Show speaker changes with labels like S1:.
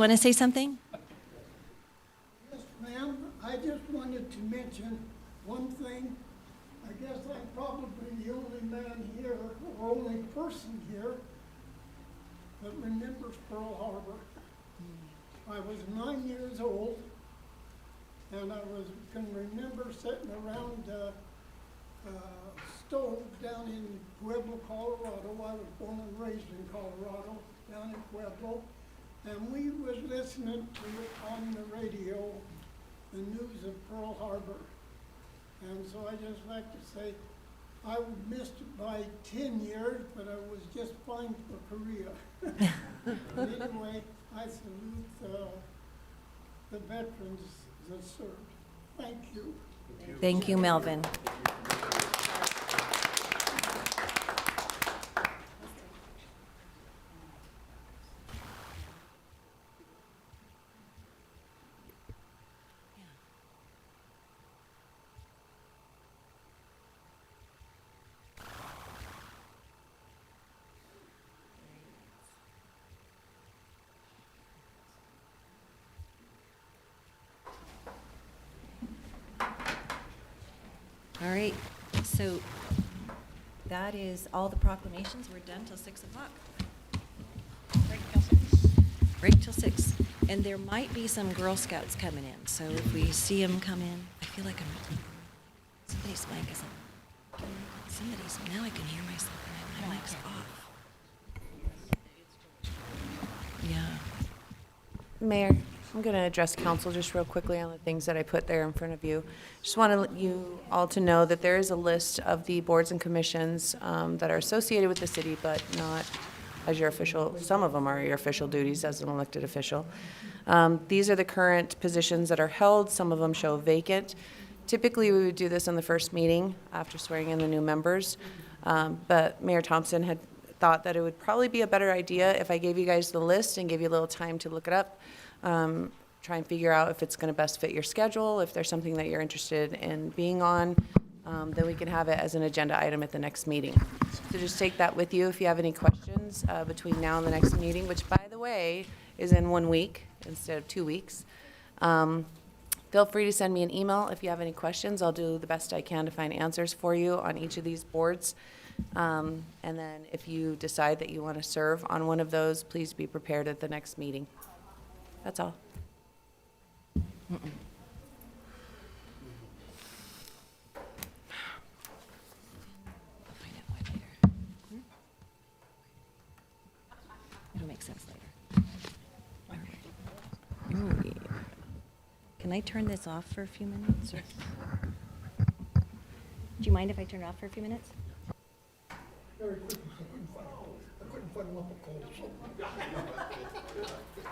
S1: Want to say something?
S2: Yes, ma'am, I just wanted to mention one thing. I guess I'm probably the only man here, or only person here, that remembers Pearl Harbor. I was nine years old, and I was, can remember sitting around a stove down in Pueblo, Colorado. I was born and raised in Colorado, down in Pueblo. And we was listening to it on the radio, the news of Pearl Harbor. And so I just like to say, I missed it by ten years, but I was just fine for Korea. But anyway, I salute uh, the, the veterans that served. Thank you.
S1: Thank you, Melvin. All right, so that is all the proclamations. We're done till 6 o'clock. Break till 6. Break till 6. And there might be some Girl Scouts coming in, so if we see them come in, I feel like I'm, somebody's mic is on. Somebody's, now I can hear myself and my mic's off. Yeah.
S3: Mayor, I'm going to address council just real quickly on the things that I put there in front of you. Just want you all to know that there is a list of the boards and commissions um, that are associated with the city, but not as your official, some of them are your official duties as an elected official. Um, These are the current positions that are held, some of them show vacant. Typically, we would do this on the first meeting after swearing in the new members, Um, but Mayor Thompson had thought that it would probably be a better idea if I gave you guys the list and gave you a little time to look it up, um, try and figure out if it's going to best fit your schedule, if there's something that you're interested in being on, um, then we can have it as an agenda item at the next meeting. So just take that with you if you have any questions uh, between now and the next meeting, which, by the way, is in one week instead of two weeks. Um, Feel free to send me an email if you have any questions. I'll do the best I can to find answers for you on each of these boards. Um, And then if you decide that you want to serve on one of those, please be prepared at the next meeting. That's all.
S1: I'll find out why later. Hmm? It'll make sense later. All right. Ooh, yeah. Can I turn this off for a few minutes? or- Do you mind if I turn it off for a few minutes?
S2: Very quick, I couldn't find, I couldn't find a lump of coal, so.